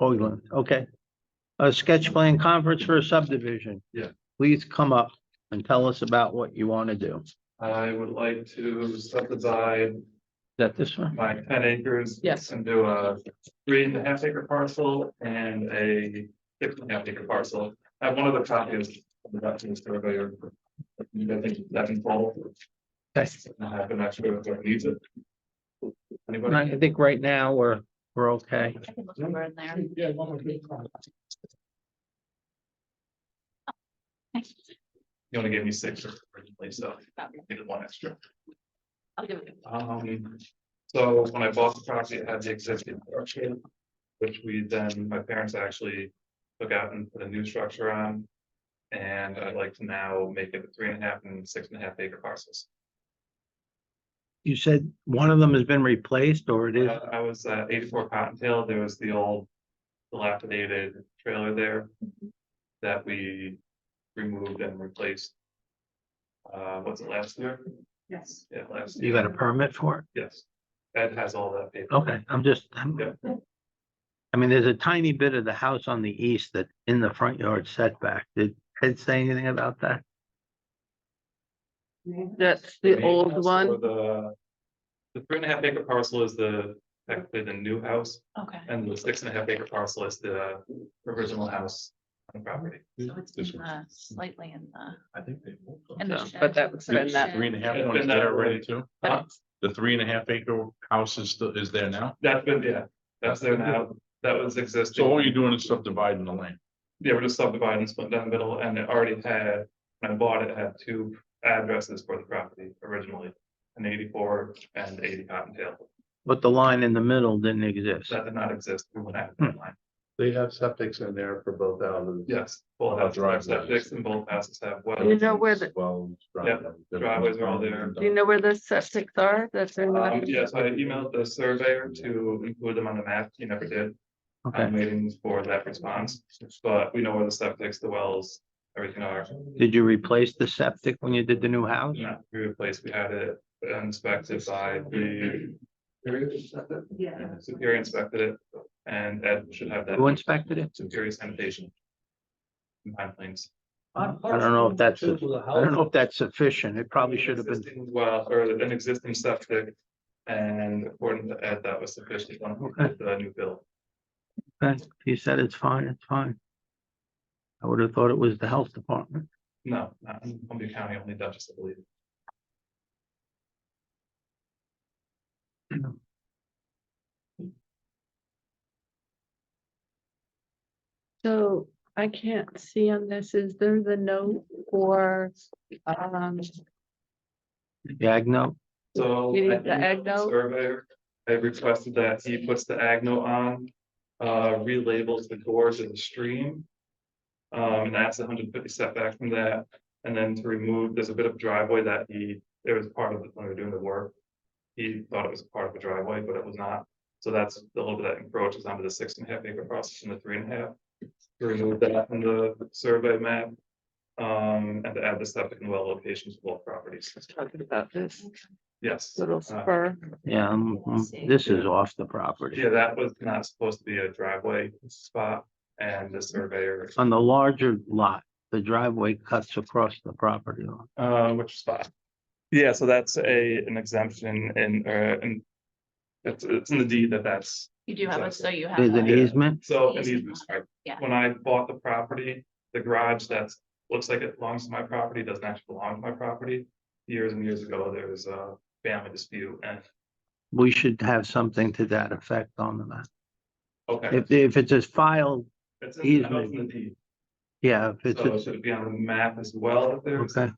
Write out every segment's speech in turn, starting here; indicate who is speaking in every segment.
Speaker 1: Hoagland, okay. A sketch plan conference for a subdivision.
Speaker 2: Yeah.
Speaker 1: Please come up and tell us about what you want to do. Is
Speaker 2: I would like to subdivide
Speaker 1: that this one?
Speaker 2: my ten acres.
Speaker 3: Yes.
Speaker 2: And do a three and a half acre parcel and a six and a half acre parcel. I have one of the copies of the documents that are. I think that involved. Yes. I have an actual, if I need it. Anybody?
Speaker 1: I think uh, right now we're, we're okay.
Speaker 4: I can look over in there.
Speaker 2: Yeah, one more. You only gave me six originally, so I needed one extra.
Speaker 4: I'll give it.
Speaker 2: Um, so when I bought the property, it had the existing structure. Which we then, my parents actually took out and put a new structure on. And I'd like to now make it three and a half and six and a half acre parcels.
Speaker 1: You said one of them has been replaced or it is,
Speaker 2: Uh, I was uh, eighty-four Cottontail, there was the old dilapidated trailer there that we removed and replaced. Uh, what's it last year?
Speaker 3: Yes.
Speaker 2: Yeah, last
Speaker 1: you
Speaker 2: year,
Speaker 1: got a permit for
Speaker 2: yes. Ed has all that
Speaker 1: it?
Speaker 2: paper.
Speaker 1: Okay, I'm just, I'm-
Speaker 2: Yeah.
Speaker 1: I mean, there's a tiny bit of the house on the east that in the front yard setback. Did Ed say anything about that?
Speaker 3: That's the
Speaker 2: main
Speaker 3: old
Speaker 2: house or
Speaker 3: one.
Speaker 2: The, the three and a half acre parcel is the, technically the new house,
Speaker 4: Okay.
Speaker 2: and the six and a half acre parcel is the original house on the property.
Speaker 4: So it's in the slightly in the,
Speaker 5: I think they. moved them.
Speaker 4: in the
Speaker 3: Yeah,
Speaker 4: shed.
Speaker 3: but that was
Speaker 4: Sort of
Speaker 3: been that-
Speaker 4: shed.
Speaker 5: Three and a half
Speaker 2: It's
Speaker 5: one
Speaker 2: been
Speaker 5: is
Speaker 2: that
Speaker 5: there
Speaker 2: way.
Speaker 5: already too?
Speaker 3: Huh?
Speaker 5: The three and a half acre house is still, is there now?
Speaker 2: That's been, yeah, that's there now, that was existing.
Speaker 5: So all you're doing is subdividing the land.
Speaker 2: Yeah, we're just subdividing, split down the middle, and it already had, when I bought it, it had two addresses for the property originally. An eighty-four and eighty Cottontail,
Speaker 1: But the line in the middle didn't exist.
Speaker 2: that did not exist, we went out
Speaker 5: Hmm.
Speaker 2: that line,
Speaker 5: They have septics in there for both houses.
Speaker 2: yes, both
Speaker 5: Oh,
Speaker 2: houses have
Speaker 5: driveways.
Speaker 2: septic and both houses have
Speaker 3: You
Speaker 2: wells.
Speaker 3: know where the-
Speaker 5: Well.
Speaker 2: Yeah, driveways are all there.
Speaker 3: Do you know where the septic are? That's in
Speaker 2: Um,
Speaker 3: the,
Speaker 2: yeah, so I emailed the surveyor to include them on the map, he never did,
Speaker 1: Okay.
Speaker 2: I'm waiting for that response, but we know where the septic, the wells, everything are.
Speaker 1: Did you replace the septic when you did the new house?
Speaker 2: Yeah, we replaced, we had it inspected by the. Yeah. Superior inspected it, and Ed should have that.
Speaker 1: Who inspected it?
Speaker 2: Superior sanitation. In Pine Plains.
Speaker 1: I don't know if that's, I don't know if that's sufficient. It probably should have been,
Speaker 2: Existing Well, or an existing septic, and according to Ed, that was sufficient on the new bill.
Speaker 1: okay, he said it's fine, it's fine. I would have thought it was the health department.
Speaker 2: No, not in Columbia County, only Dutchess, I believe.
Speaker 3: so I can't see on this. Is there the note for, um,
Speaker 1: Yagno,
Speaker 2: So.
Speaker 3: We need
Speaker 2: I
Speaker 3: the
Speaker 2: emailed
Speaker 3: ag note?
Speaker 2: Surveyor, I requested that he puts the ag note on, uh, relabels the gorge of the stream. Um, and that's hundred and fifty setback from that, and then to remove, there's a bit of driveway that he, it was part of, the- when we were doing the work. He thought it was part of a driveway, but it was not, so that's the little bit that encroaches onto the six and a half acre process and the three and a half. To Remove that from the survey map, um, and to add the septic and well locations to both properties,
Speaker 3: talking about this
Speaker 2: yes.
Speaker 3: little
Speaker 2: Uh,
Speaker 3: spur.
Speaker 1: yeah, um, mm, this is off the property.
Speaker 2: Yeah, that was not supposed to be a driveway spot and the surveyor,
Speaker 1: On the larger lot, the driveway cuts across the property line.
Speaker 2: uh, which spot? Yeah, so that's a, an exemption and, uh, and it's, it's in the deed that that's,
Speaker 4: You do have it, so you have.
Speaker 1: There's
Speaker 4: a-
Speaker 1: an easement,
Speaker 2: so an easement, right?
Speaker 4: Yeah.
Speaker 2: When I bought the property, the garage that's, looks like it belongs to my property, doesn't actually belong to my property. Years and years ago, there was a family dispute and,
Speaker 1: we should have something to that effect on the map.
Speaker 2: okay.
Speaker 1: If, if it's a file,
Speaker 2: It's in, I know it's in the
Speaker 1: easement.
Speaker 2: deed,
Speaker 1: yeah, if it's,
Speaker 2: so it
Speaker 1: a-
Speaker 2: should be on the map as well if there's.
Speaker 1: okay,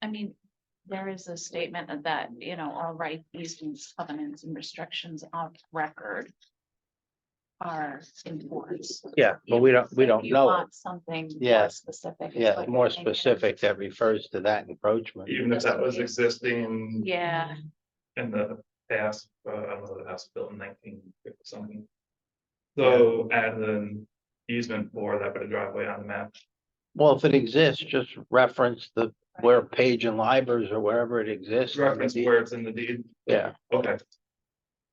Speaker 4: I mean, there is a statement of that, you know, all right, easements, covenants and restrictions of record. Are enforced.
Speaker 1: yeah, but we don't, we
Speaker 4: If
Speaker 1: don't
Speaker 4: you
Speaker 1: know. it.
Speaker 4: want Something. more
Speaker 1: Yeah.
Speaker 4: Specific. it's
Speaker 1: Yeah,
Speaker 4: what
Speaker 1: more
Speaker 4: you're thinking.
Speaker 1: specific that refers to that encroachment.
Speaker 2: Even if that was existing.
Speaker 4: Yeah.
Speaker 2: in the past, uh, I don't know, the house built in nineteen fifty something. So add an easement for that bit of driveway on the map.
Speaker 1: Well, if it exists, just reference the, where page and libraries or wherever it exists.
Speaker 2: Reference where it's in the deed.
Speaker 1: Yeah,
Speaker 2: Okay,